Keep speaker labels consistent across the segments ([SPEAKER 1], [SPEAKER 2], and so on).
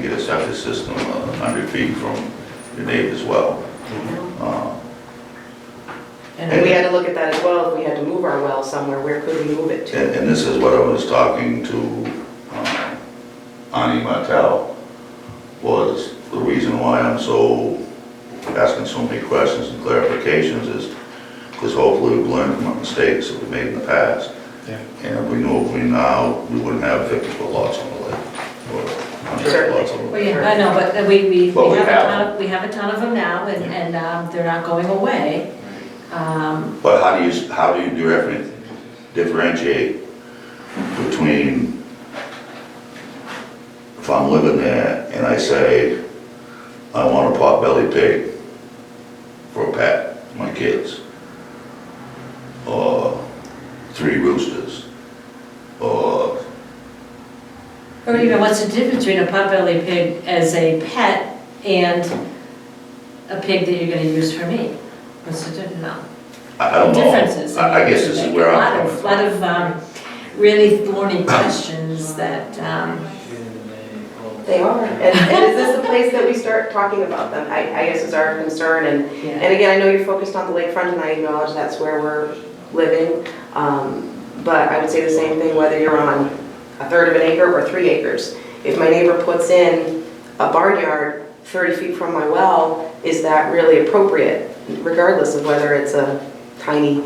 [SPEAKER 1] get a septic system a hundred feet from the neighbor's well. Uh,
[SPEAKER 2] And we had to look at that as well, if we had to move our well somewhere, where could we move it to?
[SPEAKER 1] And, and this is what I was talking to, um, Ani Martel, was the reason why I'm so, asking so many questions and clarifications is, because hopefully we've learned from our mistakes that we made in the past.
[SPEAKER 3] Yeah.
[SPEAKER 1] And if we knew if we now, we wouldn't have fifty-foot lots on the lake, or hundred
[SPEAKER 2] Certainly.
[SPEAKER 1] lots on the
[SPEAKER 4] Well,
[SPEAKER 1] lake.
[SPEAKER 4] yeah, I know, but uh, we, we,
[SPEAKER 5] But
[SPEAKER 4] we
[SPEAKER 5] we
[SPEAKER 4] have a
[SPEAKER 5] have
[SPEAKER 4] ton, of- we have a ton of them now, and,
[SPEAKER 3] Yeah.
[SPEAKER 4] and um, they're not going away. Um,
[SPEAKER 1] But how do you, how do you different- differentiate between if I'm living there and I say, I want a potbelly pig for a pet, my kids, or three roosters, or,
[SPEAKER 4] Or even, what's the difference between a potbelly pig as a pet and a pig that you're gonna use for meat? What's the difference, no?
[SPEAKER 1] I I don't know.
[SPEAKER 4] Differences.
[SPEAKER 1] I I guess this is where I'm
[SPEAKER 4] A
[SPEAKER 1] coming from.
[SPEAKER 4] lot of, lot of, um, really thorny questions that, um,
[SPEAKER 2] They are, and, and is this the place that we start talking about them? I, I guess is our concern, and,
[SPEAKER 4] yeah.
[SPEAKER 2] and again, I know you're focused on the lakefront, and I acknowledge that's where we're living. Um, But I would say the same thing whether you're on a third of an acre or three acres. If my neighbor puts in a barnyard thirty feet from my well, is that really appropriate? Regardless of whether it's a tiny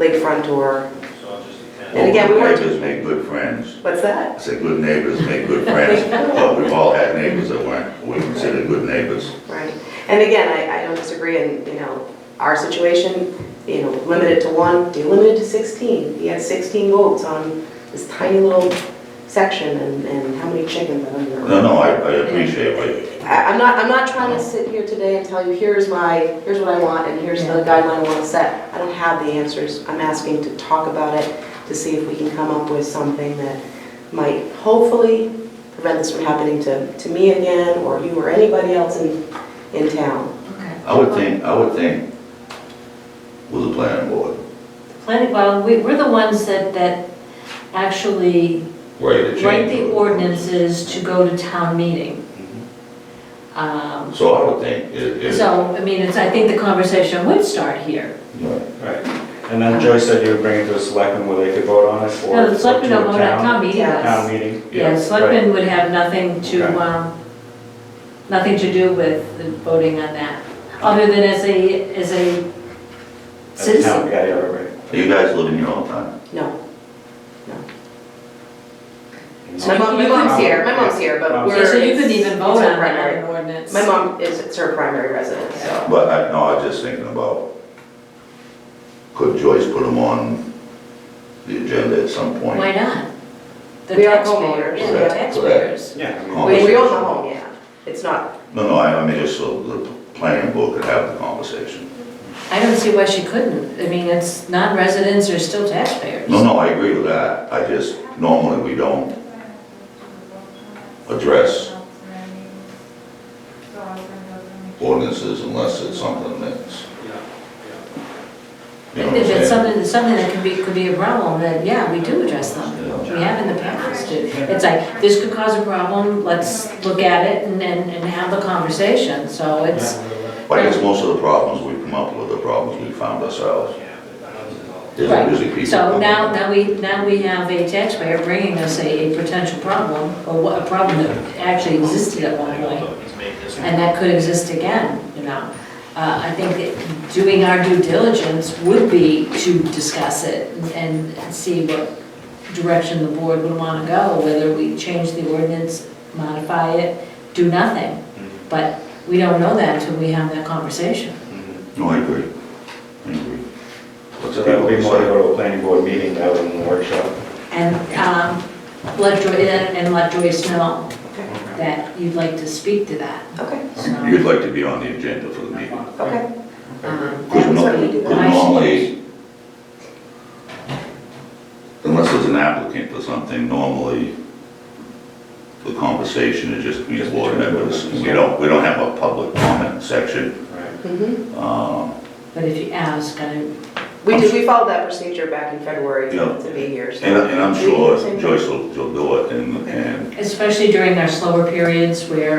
[SPEAKER 2] lakefront or, And again, we
[SPEAKER 1] Well,
[SPEAKER 2] weren't-
[SPEAKER 1] good Neighbors make good friends.
[SPEAKER 2] what's that?
[SPEAKER 1] I said, good neighbors make good friends, but we've all had neighbors that weren't, we consider good neighbors.
[SPEAKER 2] Right, and again, I, I don't disagree, and, you know, our situation, you know, limited to one, you limited to sixteen, he had sixteen votes on this tiny little section, and, and how many chickens are under.
[SPEAKER 1] No, no, I, I appreciate what,
[SPEAKER 2] I, I'm not, I'm not trying to sit here today and tell you, here's my, here's what I want, and here's the guideline I wanna set. I don't have the answers, I'm asking to talk about it, to see if we can come up with something that might hopefully prevent this from happening to, to me again, or you, or anybody else in, in town.
[SPEAKER 4] Okay.
[SPEAKER 1] I would think, I would think with the planning board,
[SPEAKER 4] Planning, well, we, we're the ones that, that actually
[SPEAKER 1] right, to change.
[SPEAKER 4] write the
[SPEAKER 1] it.
[SPEAKER 4] ordinances to go to town meeting. Um,
[SPEAKER 1] So I would think it, it,
[SPEAKER 4] So, I mean, it's, I think the conversation would start here.
[SPEAKER 1] right.
[SPEAKER 3] Right, and then Joyce said you would bring it to a selectman where they could vote on it or.
[SPEAKER 4] No, the selectmen
[SPEAKER 3] to a
[SPEAKER 4] don't vote at town meeting.
[SPEAKER 2] town
[SPEAKER 4] does.
[SPEAKER 3] Town meeting.
[SPEAKER 4] Yeah, the selectmen would have nothing
[SPEAKER 3] Okay.
[SPEAKER 4] to, um, nothing to do with the voting on that, other than as a, as a
[SPEAKER 3] At the town-
[SPEAKER 4] citizen.
[SPEAKER 3] Yeah, yeah, right, right.
[SPEAKER 1] you guys live in your own time?
[SPEAKER 2] No.
[SPEAKER 3] And
[SPEAKER 2] My
[SPEAKER 4] So
[SPEAKER 2] mom, my
[SPEAKER 4] you
[SPEAKER 2] mom's
[SPEAKER 3] could-
[SPEAKER 2] here, my mom's here, but
[SPEAKER 3] Yeah,
[SPEAKER 2] we're.
[SPEAKER 4] So you
[SPEAKER 2] it's-
[SPEAKER 4] couldn't even
[SPEAKER 2] it's
[SPEAKER 4] vote on
[SPEAKER 2] her
[SPEAKER 4] that
[SPEAKER 2] primary.
[SPEAKER 4] on an ordinance.
[SPEAKER 2] My mom is, it's her primary residence, so.
[SPEAKER 1] But I, no, I was just thinking about, could Joyce put them on the agenda at some point?
[SPEAKER 4] Why not? The
[SPEAKER 2] We are
[SPEAKER 4] taxpayers,
[SPEAKER 2] homeowners.
[SPEAKER 4] yeah, the
[SPEAKER 1] Correct,
[SPEAKER 4] taxpayers.
[SPEAKER 3] Yeah. I mean-
[SPEAKER 1] Oh.
[SPEAKER 2] We, we own the home, yeah, it's not,
[SPEAKER 1] No, no, I, I mean, just so the planning board could have the conversation.
[SPEAKER 4] I don't see why she couldn't. I mean, it's, non-residents are still taxpayers.
[SPEAKER 1] No, no, I agree with that, I just, normally we don't address ordinances unless it's something that's, you know
[SPEAKER 4] If
[SPEAKER 1] what I'm
[SPEAKER 4] it's
[SPEAKER 1] saying?
[SPEAKER 4] something, something that could be, could be a problem, then yeah, we do address them. We have in the past, too. It's like, this could cause a problem, let's look at it and, and and have the conversation, so it's,
[SPEAKER 1] But I guess most of the problems we come up with are problems we found ourselves. There's
[SPEAKER 4] Right.
[SPEAKER 1] usually people.
[SPEAKER 4] so now, now we, now we have a taxpayer bringing us a, a potential problem, or what- a problem that actually existed at one point, and that could exist again, you know? Uh, I think that doing our due diligence would be to discuss it and and see what direction the board would want to go, whether we change the ordinance, modify it, do nothing. But we don't know that until we have that conversation.
[SPEAKER 1] No, I agree. I agree. What's
[SPEAKER 3] So
[SPEAKER 1] that?
[SPEAKER 3] that would be more to go to a planning board meeting rather than a workshop.
[SPEAKER 4] And um, let Joyce, and let Joyce know that you'd like to speak to that.
[SPEAKER 2] okay,
[SPEAKER 1] You'd
[SPEAKER 4] So,
[SPEAKER 1] like to be on the agenda for the meeting.
[SPEAKER 2] okay.
[SPEAKER 4] um,
[SPEAKER 1] Because
[SPEAKER 2] That's what we do.
[SPEAKER 1] normally, unless there's an applicant or something, normally the conversation is just between board members. We don't, we don't have a public comment section.
[SPEAKER 3] Right.
[SPEAKER 2] Mhm.
[SPEAKER 1] Um,
[SPEAKER 4] But if you ask, I
[SPEAKER 2] We did, we followed that procedure back in February
[SPEAKER 1] Yeah.
[SPEAKER 2] to be here, so.
[SPEAKER 1] And, I- and I'm
[SPEAKER 2] We did the
[SPEAKER 1] sure
[SPEAKER 2] same thing.
[SPEAKER 1] Joyce will, will do it and, and
[SPEAKER 4] especially during our slower periods where